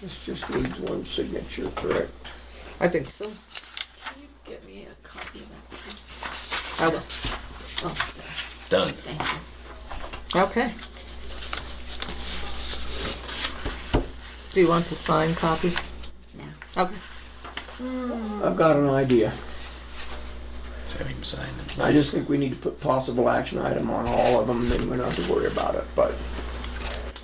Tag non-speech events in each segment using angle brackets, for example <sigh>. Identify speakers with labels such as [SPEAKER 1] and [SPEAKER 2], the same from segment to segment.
[SPEAKER 1] This just needs one signature, correct?
[SPEAKER 2] I think so.
[SPEAKER 3] Can you get me a copy of that? please?
[SPEAKER 2] I will.
[SPEAKER 3] Oh,
[SPEAKER 4] Done.
[SPEAKER 3] thank you.
[SPEAKER 2] Okay. Do you want the signed copy?
[SPEAKER 3] No.
[SPEAKER 2] Okay.
[SPEAKER 1] I've got an idea.
[SPEAKER 4] Have him sign it.
[SPEAKER 1] I just think we need to put possible action item on all of them, then we don't have to worry about it, but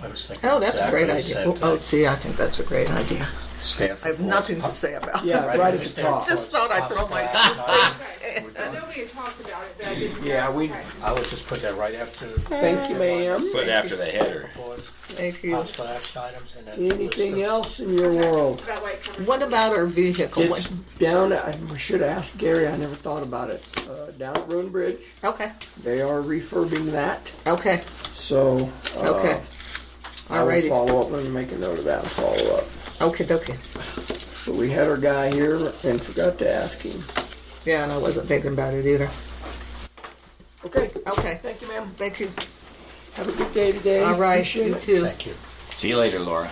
[SPEAKER 5] I was thinking
[SPEAKER 2] Oh, that's a great
[SPEAKER 5] exactly
[SPEAKER 2] idea.
[SPEAKER 5] the
[SPEAKER 2] Oh,
[SPEAKER 5] same
[SPEAKER 2] Oh,
[SPEAKER 5] thing.
[SPEAKER 2] see, I think that's a great idea.
[SPEAKER 5] Staff
[SPEAKER 2] I have
[SPEAKER 5] reports,
[SPEAKER 2] nothing to
[SPEAKER 5] pop-
[SPEAKER 2] say about it.
[SPEAKER 1] yeah, right at the top.
[SPEAKER 2] Just thought I'd throw my <laughs>
[SPEAKER 5] We're
[SPEAKER 6] I
[SPEAKER 5] done.
[SPEAKER 6] know we had talked about it, but I didn't.
[SPEAKER 1] Yeah, we,
[SPEAKER 5] I would just put that right after.
[SPEAKER 1] thank you, ma'am.
[SPEAKER 4] Put after the header.
[SPEAKER 5] reports,
[SPEAKER 2] Thank you.
[SPEAKER 5] Possible action items and then. list
[SPEAKER 1] Anything
[SPEAKER 5] them.
[SPEAKER 1] else in your world?
[SPEAKER 6] That white cover.
[SPEAKER 2] <laughs> What about our vehicle?
[SPEAKER 1] It's down, I we should ask Gary, I never thought about it. Uh, Down at Rune Bridge,
[SPEAKER 2] Okay,
[SPEAKER 1] they are refurbing that,
[SPEAKER 2] okay,
[SPEAKER 1] so. uh,
[SPEAKER 2] okay.
[SPEAKER 1] I will
[SPEAKER 2] Alrighty,
[SPEAKER 1] follow up, let me make a note of that and follow up.
[SPEAKER 2] Okay. dokie.
[SPEAKER 1] But we had our guy here and forgot to ask him.
[SPEAKER 2] Yeah, and I wasn't thinking about it either.
[SPEAKER 1] Okay,
[SPEAKER 2] Okay,
[SPEAKER 1] thank you, ma'am.
[SPEAKER 2] thank you.
[SPEAKER 1] Have a good day today.
[SPEAKER 2] All right,
[SPEAKER 1] Appreciate
[SPEAKER 2] you
[SPEAKER 1] it.
[SPEAKER 2] too.
[SPEAKER 5] Thank you.
[SPEAKER 4] See you later, Laura.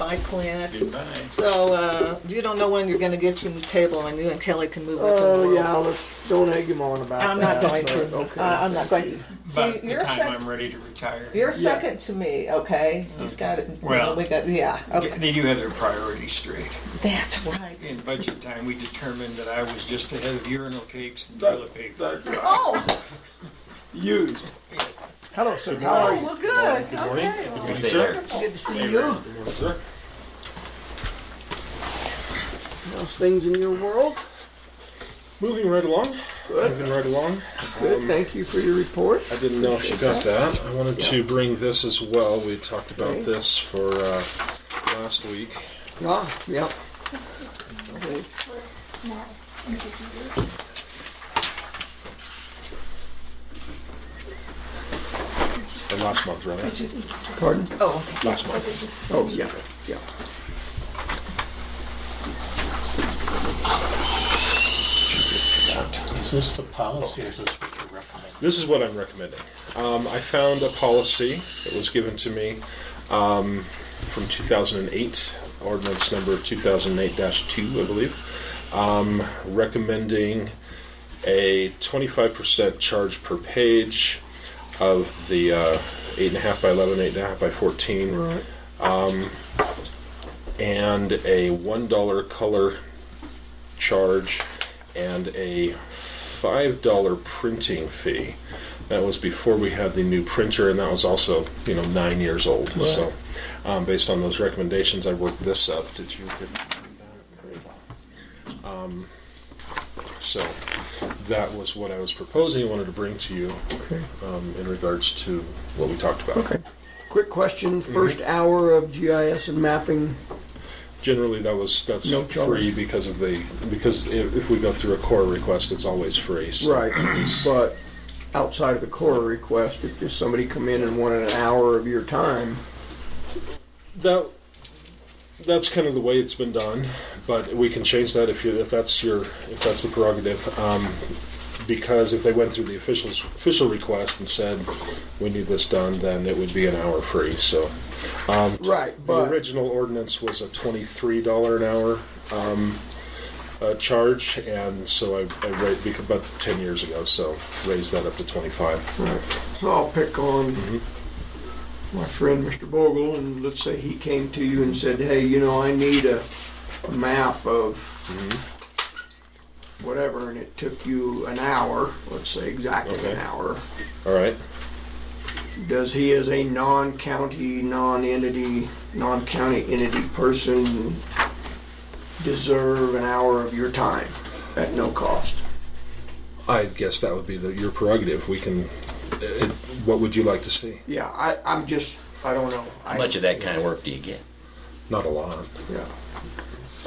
[SPEAKER 2] Bye, Clint.
[SPEAKER 4] Goodbye.
[SPEAKER 2] So, uh, you don't know when you're gonna get your new table and you and Kelly can move it to the
[SPEAKER 1] Oh,
[SPEAKER 2] world.
[SPEAKER 1] yeah, let's, don't egg him on about that.
[SPEAKER 2] I'm
[SPEAKER 1] <laughs>
[SPEAKER 2] not going
[SPEAKER 1] but
[SPEAKER 2] to. Uh,
[SPEAKER 1] Okay.
[SPEAKER 2] I- I'm not going.
[SPEAKER 7] But
[SPEAKER 2] See,
[SPEAKER 7] the
[SPEAKER 2] you're
[SPEAKER 7] time
[SPEAKER 2] sec-
[SPEAKER 7] I'm ready to retire.
[SPEAKER 2] You're second to me, okay? He's got it.
[SPEAKER 7] Well-
[SPEAKER 2] We got, yeah, okay.
[SPEAKER 7] They do have their priorities straight.
[SPEAKER 2] That's right.
[SPEAKER 7] In budget time, we determined that I was just ahead of urinal cakes and toilet paper.
[SPEAKER 2] Oh,
[SPEAKER 1] Used. Hello, sir. How are you?
[SPEAKER 2] well, good. Okay, well,
[SPEAKER 4] Good sir.
[SPEAKER 2] Good to see you.
[SPEAKER 1] How's things in your world?
[SPEAKER 8] Moving right along.
[SPEAKER 1] Good.
[SPEAKER 8] Moving right along.
[SPEAKER 1] Good. Thank you for your report.
[SPEAKER 8] I didn't know if you got that. I wanted to bring this as well. We talked
[SPEAKER 1] Okay.
[SPEAKER 8] about this for uh, last week.
[SPEAKER 1] Yeah, Ah, yeah. Okay.
[SPEAKER 8] Or last month, rather.
[SPEAKER 1] Pardon?
[SPEAKER 2] Oh,
[SPEAKER 8] Last month.
[SPEAKER 1] Oh, yeah, yeah.
[SPEAKER 5] Is this the policy or is this what you recommend?
[SPEAKER 8] This is what I'm recommending. Um, I found a policy that was given to me um, from 2008, ordinance number 2008-2, I believe, um, recommending a 25% charge per page of the uh, 8.5 by 11, 8.5 by 14, and a one dollar color charge and a five dollar printing fee. That was before we had the new printer, and that was also you know nine years old. So, um, based on those recommendations, I worked this up. Did you? Get that? Very well. Um, so that was what I was proposing. I wanted to bring to you um, in regards to what we talked about.
[SPEAKER 1] Okay. Quick question, first hour of GIS and mapping,
[SPEAKER 8] Generally, that was, that's
[SPEAKER 1] No charge.
[SPEAKER 8] free because of the, because if, if we go through a core request, it's always free. so-
[SPEAKER 1] right, but outside of the core request, if just somebody come in and wanted an hour of your time,
[SPEAKER 8] That, that's kind of the way it's been done, but we can change that if you, if that's your, if that's the prerogative. Um, because if they went through the officials, official request and said, we need this done, then it would be an hour free, so. um,
[SPEAKER 1] Right,
[SPEAKER 8] The
[SPEAKER 1] but-
[SPEAKER 8] original ordinance was a twenty-three dollar an hour, um, uh, charge, and so I, I ra- bec- about ten years ago, so raised that up to twenty-five.
[SPEAKER 1] So I'll pick on my friend Mr. Bogle, and let's say he came to you and said, hey, you know, I need a, a map of whatever, and it took you an hour, let's say exactly an
[SPEAKER 8] Okay.
[SPEAKER 1] hour.
[SPEAKER 8] All right,
[SPEAKER 1] Does he, as a non-county, non-entity, non-county entity person, deserve an hour of your time at no cost?
[SPEAKER 8] I guess that would be the, your prerogative, we can, it, what would you like to see?
[SPEAKER 1] Yeah, I, I'm just, I don't know.
[SPEAKER 4] How much of that kind of work do you get?
[SPEAKER 8] Not a lot.
[SPEAKER 1] Yeah.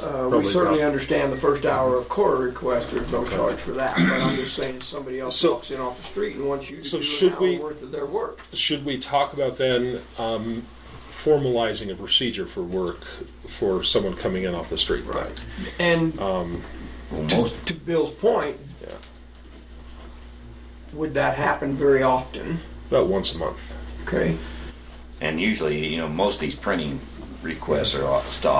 [SPEAKER 1] Uh, We
[SPEAKER 8] Probably
[SPEAKER 1] certainly
[SPEAKER 8] not.
[SPEAKER 1] understand the first hour of core request, there's no charge for that, but I'm just saying, somebody else
[SPEAKER 8] So-
[SPEAKER 1] walks in off the street and wants you
[SPEAKER 8] So
[SPEAKER 1] to do an
[SPEAKER 8] should
[SPEAKER 1] hour
[SPEAKER 8] we-
[SPEAKER 1] worth of their work.
[SPEAKER 8] Should we talk about then um, formalizing a procedure for work for someone coming in off the street? Right.
[SPEAKER 1] And
[SPEAKER 4] Most
[SPEAKER 1] Uh, to Bill's point,
[SPEAKER 8] Yeah.
[SPEAKER 1] would that happen very often?
[SPEAKER 8] About once a month.
[SPEAKER 1] Okay,
[SPEAKER 4] And usually, you know, most of these printing requests are all- stopped.